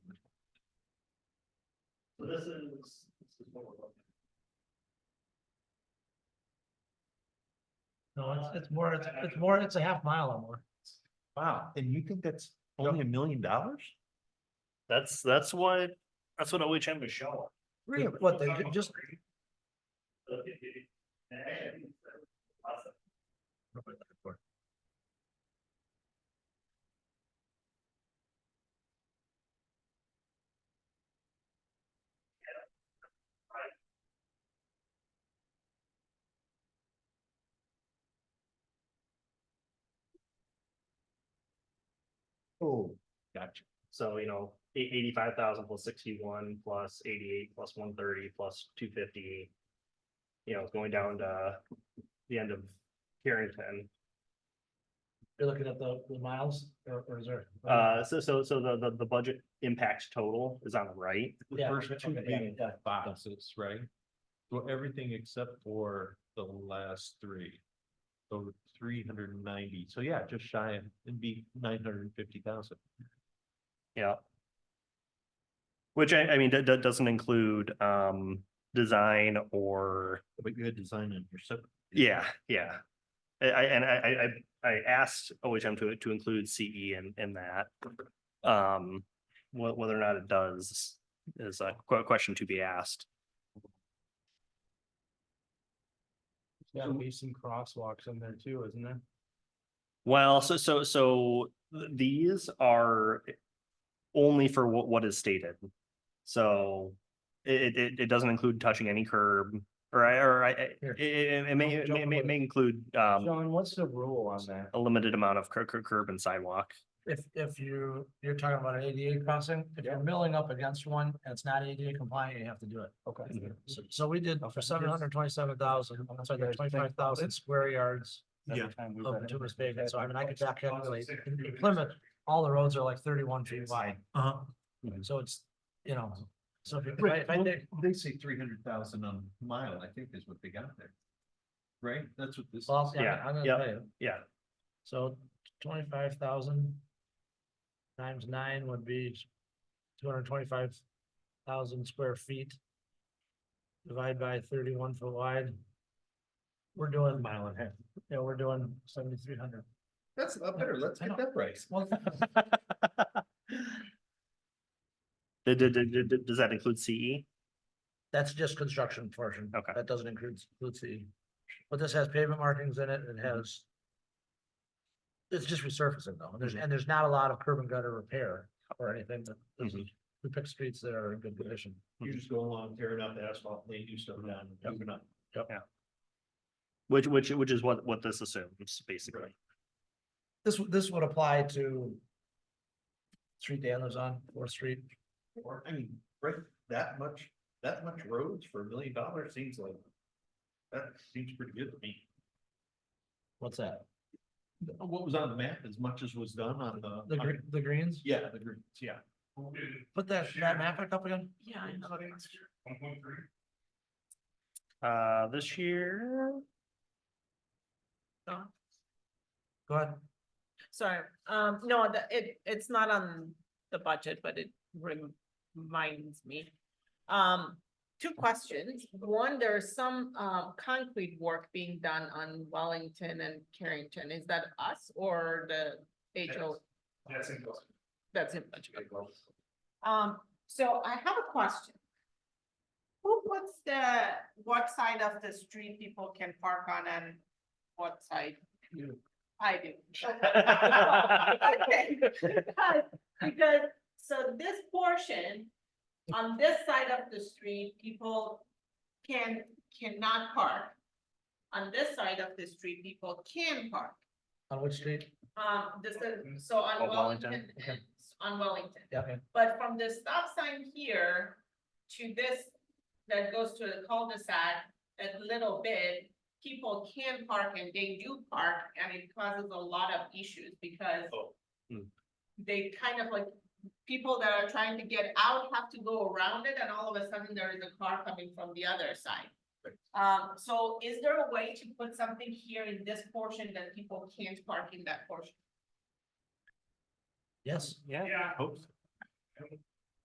this is. this is what we're looking No, it's, it's more, it's, it's more, it's a half mile or more. Wow, and you think that's only a million dollars? at. That's, that's why, that's what OHM is showing. Yeah, What, they ju- just, Oh, gotcha. So, you know, eight eighty-five thousand plus sixty-one plus eighty-eight plus one thirty plus two fifty. You know, it's going down to the end of Carrington. you're looking at the, the miles or, or is there? Uh, so, so, so the, the, the budget impact total is on the right. The Yeah, first okay, two yeah, big yeah. boxes, right? So everything except for the last three. So three hundred and ninety, so yeah, just shy of, it'd be nine hundred and fifty thousand. Yeah. Which I, I mean, that, that doesn't include, um, design or, But you had design in your sub. yeah, yeah. I, I, and I, I, I, I asked OHM to, to include CE in, in that. Um, wh- whether or not it does is a que- question to be asked. There's gotta be some crosswalks in there too, isn't there? Well, so, so, so th- these are only for what, what is stated. So it, it, it doesn't include touching any curb or, I- or I, I- Here. it, it it may, Don't it jump may, may- over. may include, um, John, what's the rule on that? a limited amount of cur- cur- curb and sidewalk. If, if you, you're talking about an ADA crossing, if you're milling up against one and it's not ADA compliant, you have to do it. Okay. Mhm. So, so we did for seven hundred twenty-seven thousand, I'm sorry, twenty-five thousand square yards. Of bituminous pavement, so I mean, I could back calculate, in in Plymouth, all the roads are like thirty-one feet wide, Uh, so it's, you know. So if you- if I, if I did, they say three hundred thousand on mile, I think is what they got there. Right, that's what this. well, yeah, Yeah, I'm gonna yeah. tell you. Yeah, So twenty-five thousand times nine would be two hundred twenty-five thousand square feet. Divide by thirty-one foot wide. We're doing. Mile and a half. Yeah, we're doing seventy-three hundred. That's a lot better, let's I get know. that price. Well, Did, did, did- did- did- does that include E? CE? that's just construction portion. Okay. That doesn't include, include the, but this has pavement markings in it, it has. It's just resurfacing though, and there's, and there's not a lot of curb and gutter repair or anything that, this is- we pick streets that are in good condition. You just go along, tear it up, asphalt, they do stuff down, Yep. moving up. Which, which, which is what, what this assumes, basically. This, would- this would apply to. Street Dan lives on, Fourth Street, Or, I mean, right, that much, that much roads for a million dollars seems like. That seems pretty good to me. what's that? What was on the map as much as was done on the. The gre- the greens, Yeah, the greens, yeah. put that, that map back up again? Yeah, I know. Uh, this year, Go ahead, Sorry, um, no, the, it, it's not on the budget, but it reminds me. Um, two questions. One, there's some, um, concrete work being done on Wellington and Carrington. Is that us or the HO? That's in budget. That's in budget. Um, so I have a question. Who puts the, what side of the street people can park on and what side? You. I do. Okay. Because, because, so this portion, on this side of the street, people can, cannot park. On this side of the street, people can park, on which street? um, this is, so on On Wellington, Wellington, okay. and- on Wellington. Yeah, okay. But from the stop sign here to this, that goes to the cul-de-sac, a little bit, people can park and they do park, and it causes a lot of issues because Oh. Hmm. they kind of like, people that are trying to get out have to go around it, and all of a sudden there is a car coming from the other side. Um, so is there a way to put something here in this portion that people can't park in that portion? yes, Yeah. Hopes.